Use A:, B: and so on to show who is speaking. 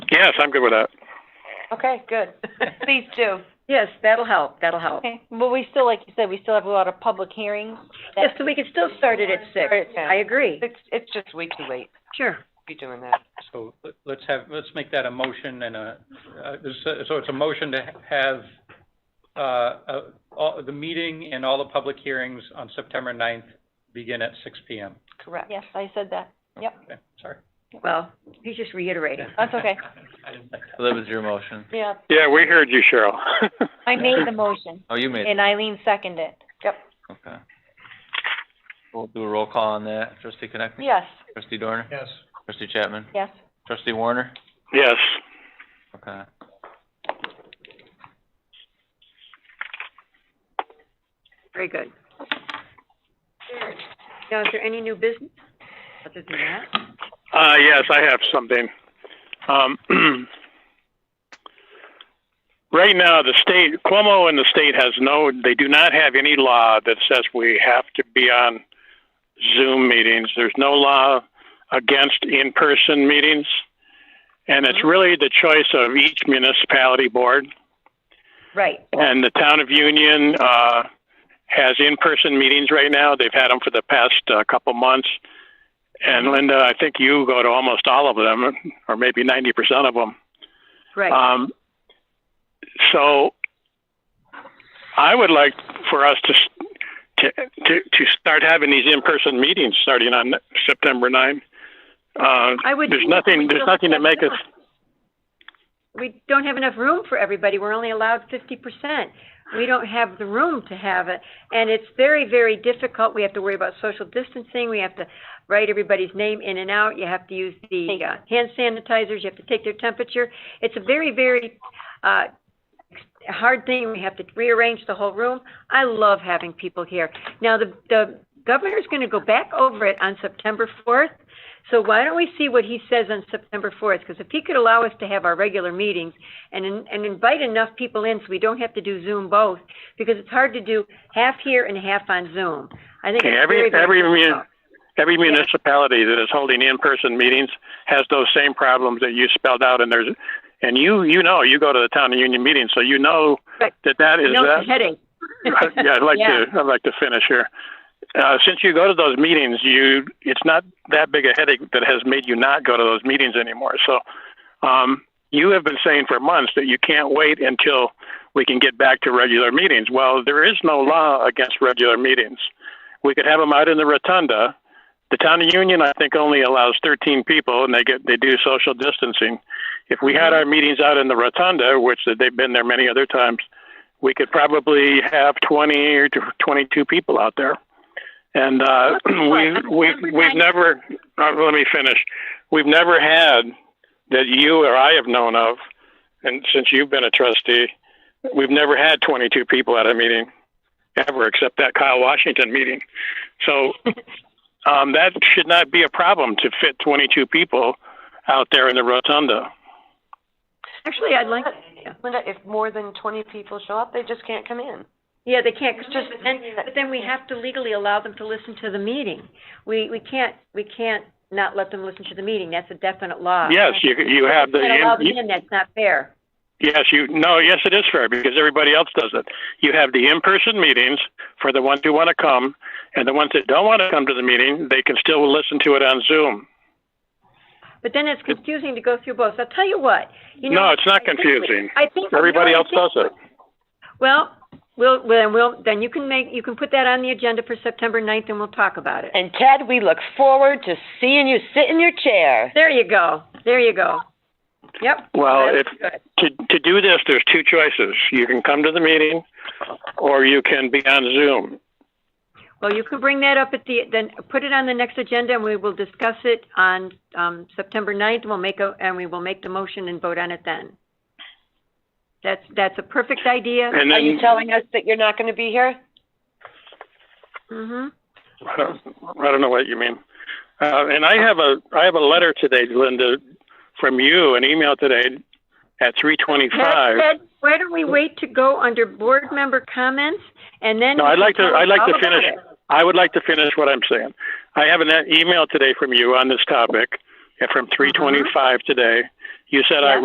A: Yes, I'm good with that.
B: Okay, good.
C: Please do.
B: Yes, that'll help, that'll help.
C: Okay, well, we still, like you said, we still have a lot of public hearings.
B: Yes, so we could still start it at six.
C: Start at ten.
B: I agree,
D: It's, it's just way too late
B: sure.
D: to be doing that.
E: So let- let's have, let's make that a motion and a, uh, this- so it's a motion to have uh, uh, all- the meeting and all the public hearings on September 9th begin at six PM.
D: Correct.
C: Yes, I said that. Yep,
E: Okay, sorry.
B: Well, he's just reiterating.
C: that's okay.
E: I didn't think
F: So that was your motion.
C: Yeah,
A: Yeah, we heard you, Cheryl.
C: I made the motion,
F: Oh, you made it,
C: and Eileen seconded it. Yep.
F: okay. We'll do a roll call on that. Trustee Connectney?
C: Yes,
F: Trustee Dorner?
E: Yes.
F: Trustee Chapman?
C: yes.
F: Trustee Warner?
A: Yes,
F: Okay.
B: Very good. Now, is there any new business other than that?
A: uh, yes, I have something. Um, right now, the state, Cuomo and the state has no, they do not have any law that says we have to be on Zoom meetings. There's no law against in-person meetings. And it's really the choice of each municipality board.
B: Right,
A: And the town of Union uh, has in-person meetings right now. They've had them for the past uh, couple months. And Linda, I think you go to almost all of them, or maybe 90% of them.
B: right.
A: Um, so I would like for us to, s- to, to, to start having these in-person meetings starting on September 9. Uh,
B: I would.
A: there's nothing, there's nothing to make us,
B: We don't have enough room for everybody. We're only allowed fifty percent. We don't have the room to have it, and it's very, very difficult. We have to worry about social distancing. We have to write everybody's name in and out. You have to use the uh, hand sanitizers. You have to take their temperature. It's a very, very uh, hard thing. We have to rearrange the whole room. I love having people here. Now, the the governor's going to go back over it on September fourth. So why don't we see what he says on September fourth? Because if he could allow us to have our regular meetings and, in- and invite enough people in so we don't have to do Zoom both, because it's hard to do half here and half on Zoom. I think
A: Okay,
B: it's
A: every-
B: very, very
A: every mu-
B: difficult.
A: every municipality that is holding in-person meetings has those same problems that you spelled out. And there's, and you, you know, you go to the town and union meeting, so you know
B: Right.
A: that that is
B: No,
A: that.
B: it's a headache.
A: yeah, I'd like
B: Yeah.
A: to. I'd like to finish here. Uh, since you go to those meetings, you it's not that big a headache that has made you not go to those meetings anymore. So, um, you have been saying for months that you can't wait until we can get back to regular meetings. Well, there is no law against regular meetings. We could have them out in the rotunda. The town of Union, I think, only allows 13 people, and they get they do social distancing. If we had our meetings out in the rotunda, which they've been there many other times, we could probably have 20 or 22 people out there. And uh, we, we, we've never, uh, let me finish. We've never had that you or I have known of, and since you've been a trustee, we've never had 22 people at a meeting ever except that Kyle Washington meeting. So um, that should not be a problem to fit 22 people out there in the rotunda.
B: Actually, I'd like, yeah.
D: Linda, if more than twenty people show up, they just can't come in.
B: Yeah, they can't, 'cause just, but then, but then we have to legally allow them to listen to the meeting. We, we can't, we can't not let them listen to the meeting. That's a definite law.
A: Yes, you you have the
B: If we can't allow them
A: you-
B: in, that's not fair.
A: Yes, you, no, yes, it is fair because everybody else does it. You have the in-person meetings for the ones who want to come, and the ones that don't want to come to the meeting, they can still listen to it on Zoom.
B: But then it's confusing to go through both. I'll tell you what, you know.
A: No, it's not
B: I think we-
A: confusing.
B: I think. you know
A: Everybody
B: what I
A: else
B: think?
A: does it.
B: Well, we'll, well, then we'll, then you can make, you can put that on the agenda for September ninth and we'll talk about it.
G: And Ted, we look forward to seeing you sit in your chair.
B: There you go. There you go. Yep.
A: Well,
B: that's
A: if,
B: good.
A: to, to do this, there's two choices. You can come to the meeting, or you can be on Zoom.
B: Well, you can bring that up at the, then put it on the next agenda and we will discuss it on, um, September ninth. We'll make a, and we will make the motion and vote on it then. That's, that's a perfect idea.
A: And
G: Are you
A: then,
G: telling us that you're not gonna be here?
B: hmm
A: I don't know what you mean. Uh, and I have a, I have a letter today, Linda, from you, an email today at three twenty-five.
B: Ted, Ted, why don't we wait to go under board member comments and then?
A: No,
B: you
A: I'd
B: can
A: like to,
B: tell us
A: I'd like
B: all
A: to
B: about
A: finish,
B: it.
A: I would like to finish what I'm saying. I have an e- email today from you on this topic, uh, from three twenty-five today. You said I